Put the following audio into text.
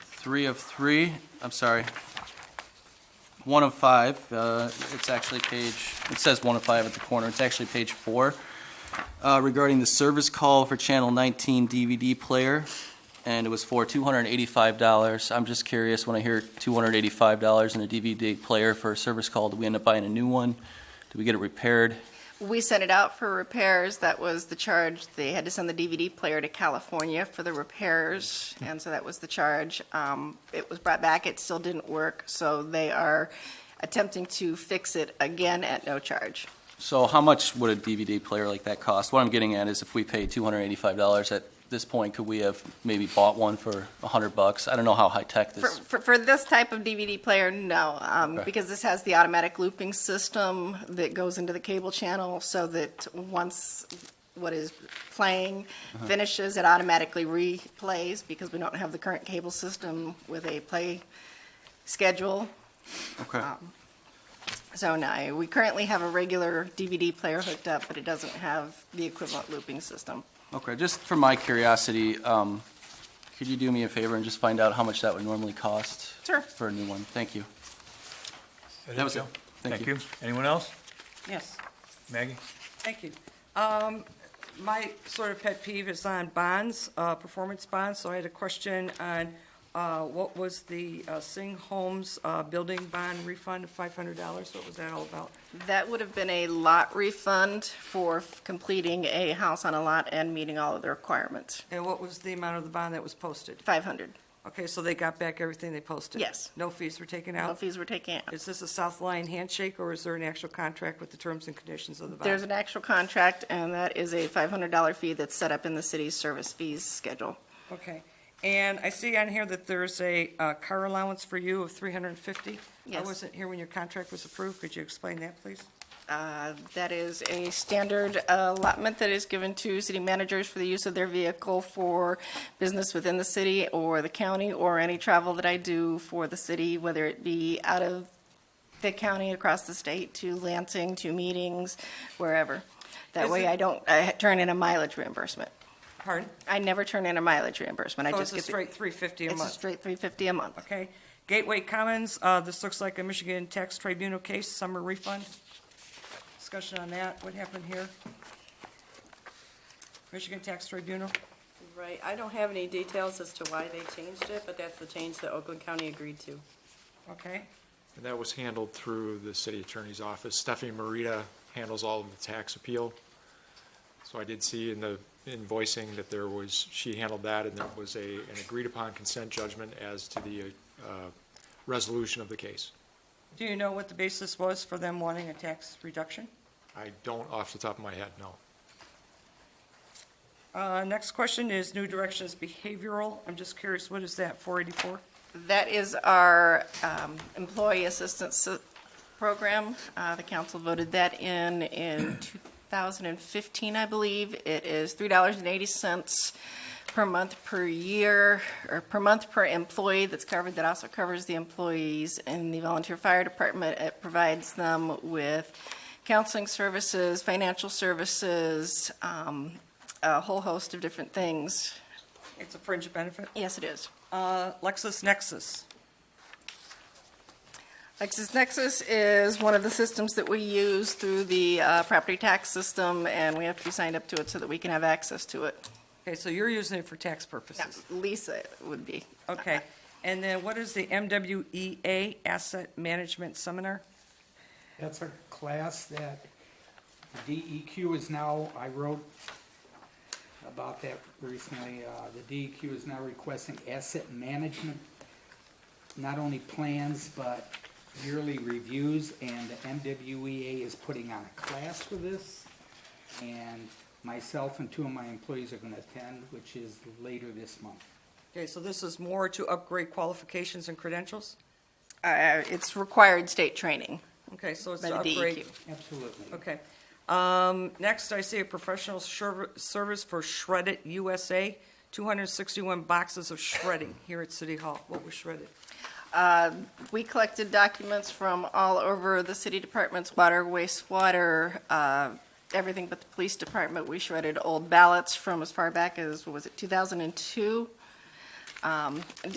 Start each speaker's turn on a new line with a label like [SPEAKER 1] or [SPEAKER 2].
[SPEAKER 1] three of three, I'm sorry, one of five. uh, It's actually page, it says one of five at the corner. It's actually page four uh, regarding the service call for Channel 19 DVD player, and it was for $285. I'm just curious, when I hear $285 in a DVD player for a service call, do we end up buying a new one? Do we get it repaired?
[SPEAKER 2] We sent it out for repairs. That was the charge. They had to send the DVD player to California for the repairs, and so that was the charge. Um, it was brought back. It still didn't work, so they are attempting to fix it again at no charge.
[SPEAKER 1] So how much would a DVD player like that cost? What I'm getting at is if we paid $285 at this point, could we have maybe bought one for 100 bucks? I don't know how high-tech
[SPEAKER 2] For,
[SPEAKER 1] this,
[SPEAKER 2] for, for this type of DVD player, no, um,
[SPEAKER 1] Okay.
[SPEAKER 2] because this has the automatic looping system that goes into the cable channel so that once what is playing
[SPEAKER 1] Uh-huh.
[SPEAKER 2] finishes, it automatically replays because we don't have the current cable system with a play schedule.
[SPEAKER 1] okay.
[SPEAKER 2] oh. So no, we currently have a regular DVD player hooked up, but it doesn't have the equivalent looping system.
[SPEAKER 1] Okay, just for my curiosity, um, could you do me a favor and just find out how much that would normally cost?
[SPEAKER 2] Sure.
[SPEAKER 1] For a new one, thank you.
[SPEAKER 3] There
[SPEAKER 1] That was
[SPEAKER 3] you
[SPEAKER 1] it.
[SPEAKER 3] go. Thank you. Anyone else?
[SPEAKER 4] Yes,
[SPEAKER 3] Maggie?
[SPEAKER 4] thank you. Um, My sort of pet peeve is on bonds, uh, performance bonds, so I had a question on uh, what was the uh, Sing Homes uh, building bond refund of $500? What was that all about?
[SPEAKER 2] That would have been a lot refund for f- completing a house on a lot and meeting all of the requirements.
[SPEAKER 4] And what was the amount of the bond that was posted?
[SPEAKER 2] 500.
[SPEAKER 4] Okay, so they got back everything they posted?
[SPEAKER 2] Yes.
[SPEAKER 4] No fees were taken
[SPEAKER 2] No
[SPEAKER 4] out?
[SPEAKER 2] fees were taken out.
[SPEAKER 4] Oh. Is this a South Lion handshake, or is there an actual contract with the terms and conditions of the bond?
[SPEAKER 2] There's an actual contract, and that is a $500 fee that's set up in the city's service fees schedule.
[SPEAKER 4] Okay, and I see on here that there's a uh, car allowance for you of 350?
[SPEAKER 2] Yes.
[SPEAKER 4] I wasn't here when your contract was approved, could you explain that, please?
[SPEAKER 2] Uh, That is a standard allotment that is given to city managers for the use of their vehicle for business within the city or the county or any travel that I do for the city, whether it be out of the county, across the state, to Lansing, to meetings, wherever. That
[SPEAKER 4] Is
[SPEAKER 2] way
[SPEAKER 4] it-
[SPEAKER 2] I don't, I turn in a mileage reimbursement.
[SPEAKER 4] Pardon?
[SPEAKER 2] I never turn in a mileage reimbursement. I
[SPEAKER 4] So
[SPEAKER 2] just
[SPEAKER 4] Oh, it's a
[SPEAKER 2] get the-
[SPEAKER 4] straight 350 a
[SPEAKER 2] It's a
[SPEAKER 4] month?
[SPEAKER 2] straight 350 a month.
[SPEAKER 4] Okay. Gateway Commons, uh, this looks like a Michigan Tax Tribunal case, summer refund. Discussion on that, what happened here? Michigan Tax Tribunal?
[SPEAKER 5] Right, I don't have any details as to why they changed it, but that's the change that Oakland County agreed to.
[SPEAKER 4] Okay,
[SPEAKER 6] And that was handled through the city attorney's office. Stephanie Marita handles all of the tax appeal. So I did see in the invoicing that there was, she handled that, and there was a, an agreed-upon consent judgment as to the uh, resolution of the case.
[SPEAKER 4] do you know what the basis was for them wanting a tax reduction?
[SPEAKER 6] I don't off the top of my head, no.
[SPEAKER 4] Uh, Next question is New Directions Behavioral. I'm just curious, what is that, 484?
[SPEAKER 2] That is our um, employee assistance s- program. Uh, The council voted that in in 2015, I believe. It is $3.80 per month per year, or per month per employee that's covered. That also covers the employees in the volunteer fire department. It provides them with counseling services, financial services, um, a whole host of different things.
[SPEAKER 4] It's a fringe benefit.
[SPEAKER 2] Yes, it is.
[SPEAKER 4] Uh, LexisNexis.
[SPEAKER 2] LexisNexis is one of the systems that we use through the uh, property tax system, and we have to be signed up to it so that we can have access to it.
[SPEAKER 4] Okay, so you're using it for tax purposes.
[SPEAKER 2] Lisa would be.
[SPEAKER 4] Okay. And then what is the MWEA Asset Management Seminar?
[SPEAKER 7] That's a class that the DEQ is now, I wrote about that recently, uh, the DEQ is now requesting asset management, not only plans, but yearly reviews, and the MWEA is putting on a class for this. And myself and two of my employees are gonna attend, which is later this month.
[SPEAKER 4] Okay, so this is more to upgrade qualifications and credentials?
[SPEAKER 2] Uh, It's required state training.
[SPEAKER 4] Okay, so it's
[SPEAKER 2] By
[SPEAKER 4] to
[SPEAKER 2] the E
[SPEAKER 4] upgrade.
[SPEAKER 2] DEQ.
[SPEAKER 7] Absolutely.
[SPEAKER 4] Okay. Um, Next, I see a professional serv- service for Shred It USA, 261 boxes of shredding here at City Hall. What was shredded?
[SPEAKER 2] We collected documents from all over the city departments, water, wastewater, uh, everything but the police department. We shredded old ballots from as far back as, what was it, 2002? Um,